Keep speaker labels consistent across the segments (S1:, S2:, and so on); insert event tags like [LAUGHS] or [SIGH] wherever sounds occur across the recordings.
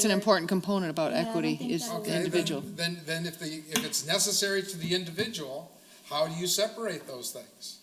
S1: It's an important component about
S2: Yeah, I don't
S1: equity
S2: think
S1: is the
S2: that is-
S3: Okay, then-
S1: individual.
S3: Then, then if the, if it's necessary to the individual, how do you separate those things?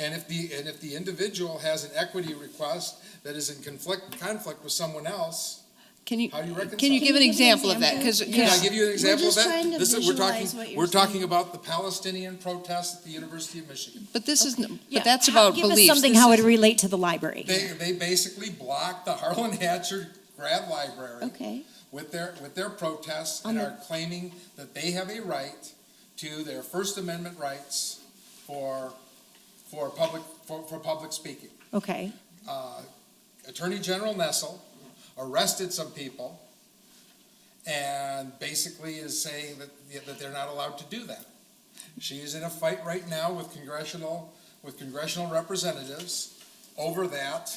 S3: And if the, and if the individual has an equity request that is in conflict, conflict with someone else,
S1: Can you,
S3: how do you reconcile?
S1: can you give an example of that? Because,
S3: Can I
S2: Yeah.
S3: give you an example of
S2: just trying
S3: that?
S2: to
S3: This is, we're talking,
S2: visualize what you're
S3: we're talking
S2: saying.
S3: about the Palestinian protests at the University of Michigan.
S1: but this is, n-
S4: Yeah,
S1: but that's
S4: how-
S1: about
S4: give us
S1: beliefs.
S4: something
S1: This
S4: how
S1: is-
S4: it relate to the library.
S3: They, they basically blocked the Harlan Hatcher Grad Library
S2: Okay,
S3: with their, with their protests
S2: On
S3: and
S2: the-
S3: are claiming that they have a right to their First Amendment rights for, for public, for, for public speaking.
S4: Okay,
S3: Uh, Attorney General Nessel arrested some people and basically is saying that, that they're not allowed to do that. She is in a fight right now with congressional, with congressional representatives over that,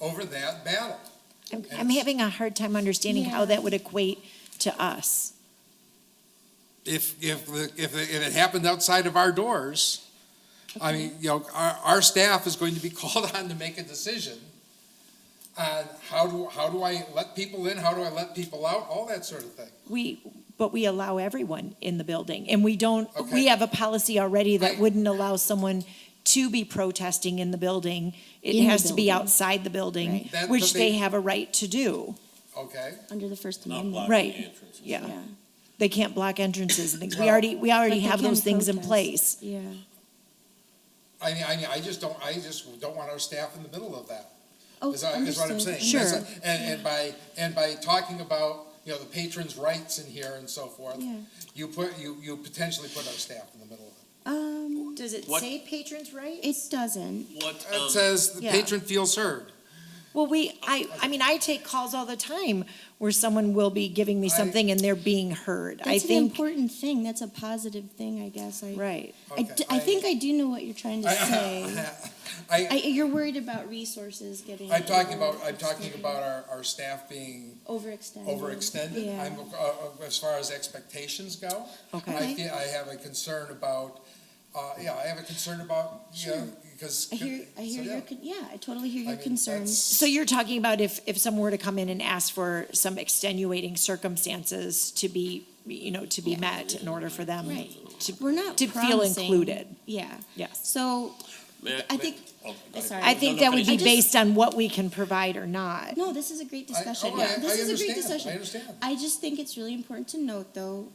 S3: over that battle.
S4: I'm,
S3: And
S4: I'm
S3: it's-
S4: having a hard time understanding how
S2: Yeah.
S4: that would equate to us.
S3: if, if, the- if, it- if it happened outside of our doors, I mean, you know, our, our staff is going to be [LAUGHS] called on to make a decision on how do, how do I let people in, how do I let people out, all that sort of thing.
S4: We, but we allow everyone in the building, and we don't.
S3: Okay.
S4: We have a policy already that
S3: I-
S4: wouldn't allow someone to be protesting in the building. It
S2: In the
S4: has to be
S2: building.
S4: outside the building,
S2: Right.
S3: That-
S4: which
S3: but
S4: they,
S3: they-
S4: have a right to do.
S3: Okay,
S2: under the First
S5: Not
S2: Amendment.
S5: blocking
S4: Right.
S5: the entrances.
S4: Yeah. they can't block entrances and things. We
S3: Well-
S4: already we already
S2: But they
S4: have
S2: can
S4: those things in
S2: protest.
S4: place.
S2: Yeah,
S3: I mean, I mean, I just don't, I just don't want our staff in the middle of that,
S2: oh,
S3: is, is what I'm
S2: understood.
S3: saying.
S4: Sure.
S3: That's- And, and by, and by talking about, you know, the patrons' rights in here and so forth,
S2: Yeah,
S3: you put, you, you potentially put our staff in the middle of it.
S2: um,
S4: Does it
S5: What-
S4: say patrons' rights?
S2: it doesn't,
S5: What,
S3: It
S5: um,
S3: says the
S4: yeah.
S3: patron feels heard.
S4: Well, we, I, I mean, I take calls all the time where someone will be giving me
S3: I-
S4: something and they're being heard. I
S2: that's an
S4: think,
S2: important thing, that's a positive thing, I guess, I.
S4: right.
S2: I,
S3: Okay,
S2: d- I think I do know what you're
S3: [LAUGHS]
S2: trying to say.
S3: I,
S2: I, you're worried about resources getting.
S3: I'm talking about, I'm talking about our, our staff being
S2: Overextended.
S3: overextended.
S2: Yeah.
S3: I'm, uh, as far as expectations go, I
S4: Okay.
S3: feel, I have a concern about, uh, yeah, I have a concern about, you know,
S2: Sure.
S3: because.
S2: I hear, I hear
S3: so,
S2: your,
S3: yeah.
S2: con- yeah, I totally hear
S3: I
S2: your
S3: mean,
S2: concerns.
S3: that's-
S4: So you're talking about if, if someone were to come in and ask for some extenuating circumstances to be, you know, to be met in order for them
S2: Right.
S4: to,
S2: We're not
S4: to feel
S2: promising-
S4: included.
S2: Yeah,
S4: Yes.
S2: so
S5: may
S2: I think-
S5: Oh, go ahead.
S2: Sorry.
S4: I think that would
S5: I
S4: be
S2: just-
S4: based on what we can provide or not.
S2: No, this is a great discussion.
S3: oh,
S2: yeah,
S3: I-
S2: this
S3: I
S2: is a great
S3: understand. I
S2: discussion.
S3: understand.
S2: I just think it's really important to note, though,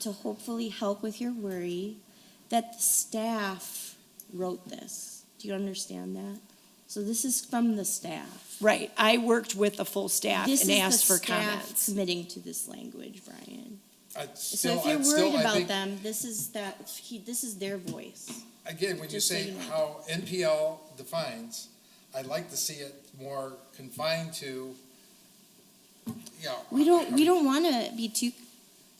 S2: to hopefully help with your worry, that the staff wrote this. Do you understand that? So this is from the staff.
S4: Right. I worked with the full staff
S2: this
S4: and
S2: is
S4: asked
S2: the
S4: for
S2: staff
S4: comments.
S2: committing to this language, Brian.
S3: I'd
S2: So
S3: still-
S2: if you're
S3: I'd still-
S2: worried
S3: I
S2: about
S3: think-
S2: them, this is that. He, this is their voice.
S3: Again, when you
S2: Just so
S3: say
S2: you know.
S3: how NPL defines, I'd like to see it more confined to, you know.
S2: We don't. We don't want to be too.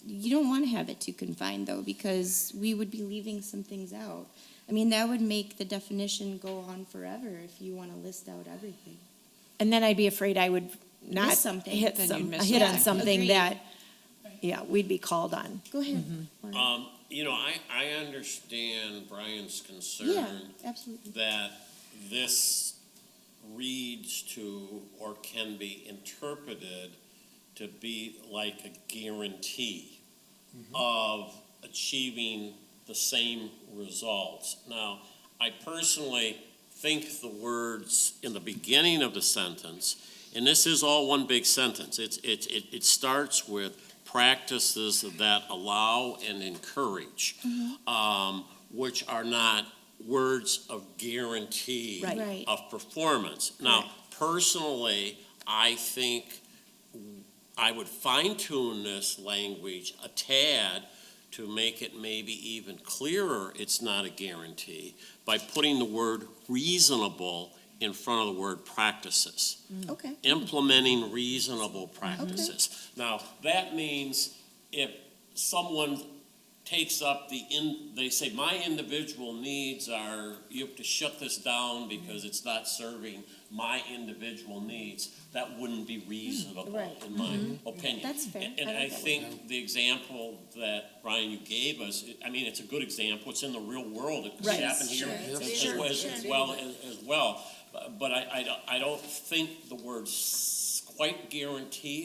S2: You don't want to have it too confined though, because we would be leaving some things out. I mean, that would make the definition go on forever if you want to list out everything.
S4: And then I'd be afraid I would not
S2: Miss something.
S4: hit
S1: Then you'd
S4: some,
S1: miss
S4: hit on
S2: something.
S4: something
S2: Agreed.
S4: that, yeah, we'd be called on.
S2: Go ahead. Lauren.
S5: Um, you know, I, I understand Brian's
S2: yeah,
S5: concern
S2: absolutely.
S5: that this reads to or can be interpreted to be like a guarantee of achieving the same results. Now, I personally think the words in the beginning of the sentence, and this is all one big sentence, it's, it, it, it starts with practices that allow and encourage, um, which are not words of guarantee
S4: Right.
S2: Right.
S5: of performance. Now, personally, I think I would fine tune this language a tad to make it maybe even clearer, it's not a guarantee, by putting the word reasonable in front of the word practices,
S2: Okay.
S5: implementing reasonable practices. Now, that means if someone takes up the in, they say, my individual needs are, you have to shut this down because it's not serving my individual needs, that wouldn't be reasonable,
S2: Right.
S5: in my opinion.
S2: That's fair.
S5: And-
S2: I
S5: And
S2: like
S5: I
S2: that one.
S5: think the example that, Brian, you gave us, I mean, it's a good example, it's in the real world, it could
S4: Right.
S5: happen here
S2: Sure.
S5: as as well, as as well. But- But I, I don't- I don't think the word s- quite guarantee